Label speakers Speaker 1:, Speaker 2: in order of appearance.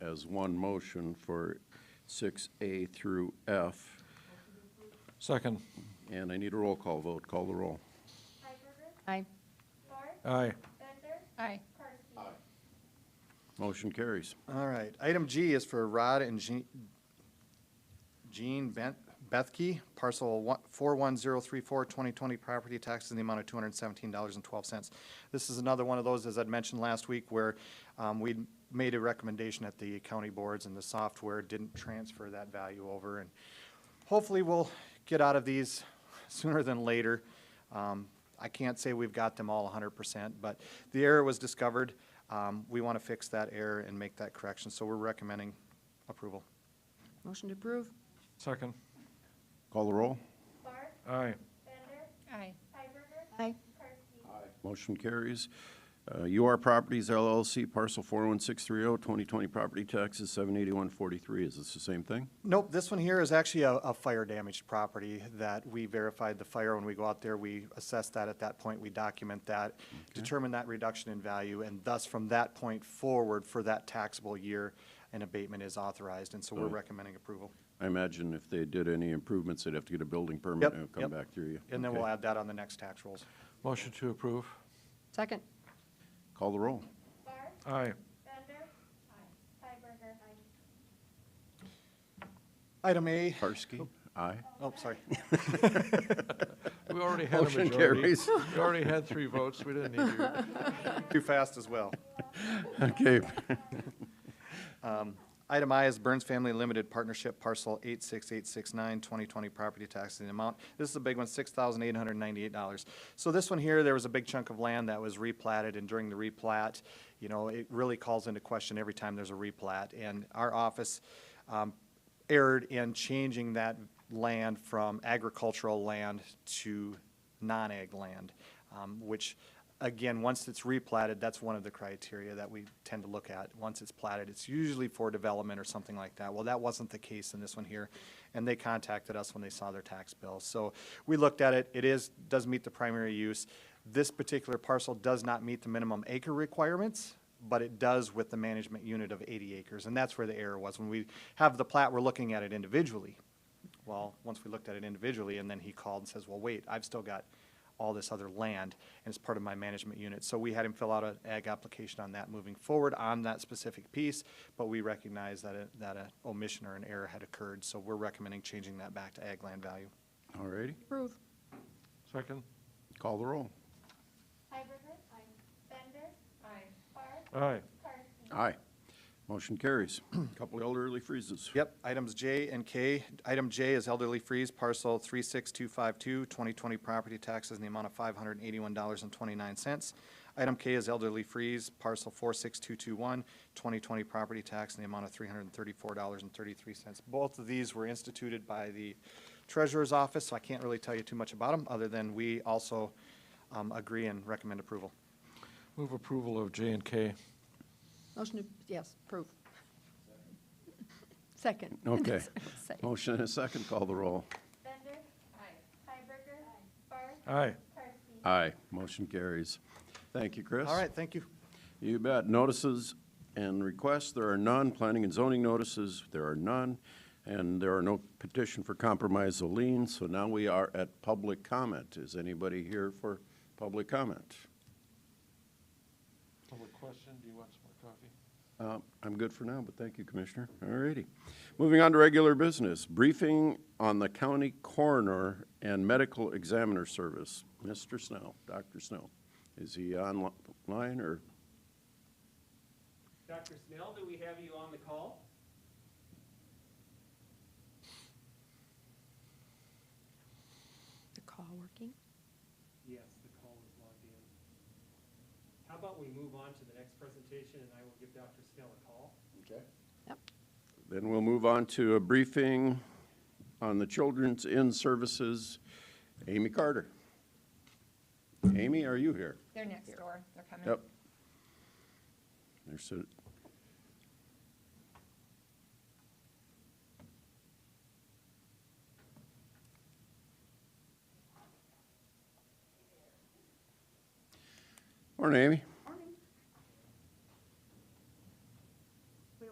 Speaker 1: as one motion for 6A through F.
Speaker 2: Second.
Speaker 1: And I need a roll call vote. Call the roll.
Speaker 3: Hiberger,
Speaker 4: Aye.
Speaker 3: Barth,
Speaker 2: Aye.
Speaker 3: Bender,
Speaker 4: Aye.
Speaker 3: Karski.
Speaker 1: Motion carries.
Speaker 5: All right, item G is for Rod and Jean- Jean Ben- Bethke, parcel one- 41034, 2020 property taxes in the amount of $217.12. This is another one of those, as I'd mentioned last week, where um, we made a recommendation at the county boards and the software didn't transfer that value over. And hopefully we'll get out of these sooner than later. Um, I can't say we've got them all hundred percent, but the error was discovered. Um, we want to fix that error and make that correction, so we're recommending approval.
Speaker 4: Motion to approve.
Speaker 2: Second.
Speaker 1: Call the roll.
Speaker 3: Barth,
Speaker 2: Aye.
Speaker 3: Bender,
Speaker 4: Aye.
Speaker 3: Hiberger,
Speaker 4: Aye.
Speaker 3: Karski.
Speaker 1: Motion carries. Uh, UR Properties LLC, parcel 41630, 2020 oh, property taxes, 78143. Is this the same thing?
Speaker 5: Nope, this one here is actually a, a fire damaged property that we verified the fire when we go out there. We assess that at that point, we document that, determine that reduction in value, and thus from that point forward for that taxable year, an abatement is authorized, and so we're
Speaker 1: Right.
Speaker 5: recommending approval.
Speaker 1: I imagine if they did any improvements, they'd have to get a building permit.
Speaker 5: Yep,
Speaker 1: and it would come
Speaker 5: yep.
Speaker 1: back through you.
Speaker 5: And then
Speaker 1: Okay.
Speaker 5: we'll add that on the next tax rolls.
Speaker 2: Motion to approve.
Speaker 4: Second.
Speaker 1: Call the roll.
Speaker 3: Barth,
Speaker 2: Aye.
Speaker 3: Bender, Hiberger,
Speaker 5: Item A,
Speaker 1: Karski? Aye.
Speaker 5: oh, sorry.
Speaker 2: We already had a
Speaker 1: Motion
Speaker 2: majority.
Speaker 1: carries.
Speaker 2: We already had three votes. We didn't need you.
Speaker 5: Too fast as well.
Speaker 1: Okay.
Speaker 5: Item I is Burns Family Limited Partnership Parcel 86869, 2020 property tax in the amount, this is a big one, $6,898. So this one here, there was a big chunk of land that was replatted, and during the replat, you know, it really calls into question every time there's a replat. And our office um, erred in changing that land from agricultural land to non-ag land, um, which, again, once it's replatted, that's one of the criteria that we tend to look at. Once it's platted, it's usually for development or something like that. Well, that wasn't the case in this one here, and they contacted us when they saw their tax bill. So we looked at it, it is, does meet the primary use. This particular parcel does not meet the minimum acre requirements, but it does with the management unit of 80 acres, and that's where the error was. When we have the plat, we're looking at it individually. Well, once we looked at it individually, and then he called and says, well, wait, I've still got all this other land, and it's part of my management unit. So we had him fill out an ag application on that moving forward on that specific piece, but we recognize that, it- that an omission or an error had occurred, so we're recommending changing that back to ag land value.
Speaker 1: All righty.
Speaker 4: Approve.
Speaker 2: Second.
Speaker 1: Call the roll.
Speaker 3: Hiberger, Bender, Barth,
Speaker 2: Aye.
Speaker 3: Karski.
Speaker 1: Aye. Motion carries. Couple elderly freezes.
Speaker 5: Yep, items J and K. Item J is elderly freeze parcel 36252, 2020 property taxes in the amount of $581.29. Item K is elderly freeze parcel 46221, 2020 property tax in the amount of $334.33. Both of these were instituted by the treasurer's office, so I can't really tell you too much about them, other than we also um, agree and recommend approval.
Speaker 2: Move approval of J and K.
Speaker 4: Motion to, yes, approve. Second.
Speaker 1: Okay.
Speaker 4: Say.
Speaker 1: Motion and a second. Call the roll.
Speaker 3: Bender, Hiberger, Barth,
Speaker 2: Aye.
Speaker 3: Karski.
Speaker 1: Aye. Motion carries. Thank you, Chris.
Speaker 5: All right, thank you.
Speaker 1: You bet. Notices and requests, there are none. Planning and zoning notices, there are none. And there are no petition for compromise of lien, so now we are at public comment. Is anybody here for public comment?
Speaker 2: Public question, do you want some more coffee?
Speaker 1: Uh, I'm good for now, but thank you, Commissioner. All righty. Moving on to regular business, briefing on the county coroner and medical examiner service. Mr. Snow, Dr. Snow, is he online or?
Speaker 6: Dr. Snell, do we have you on the call?
Speaker 4: The call working?
Speaker 6: Yes, the call is logged in. How about we move on to the next presentation, and I will give Dr. Snell a call?
Speaker 1: Okay.
Speaker 4: Yep.
Speaker 1: Then we'll move on to a briefing on the Children's In Services, Amy Carter. Amy, are you here?
Speaker 7: They're next door, they're coming.
Speaker 1: Yep. There's a, Morning, Amy.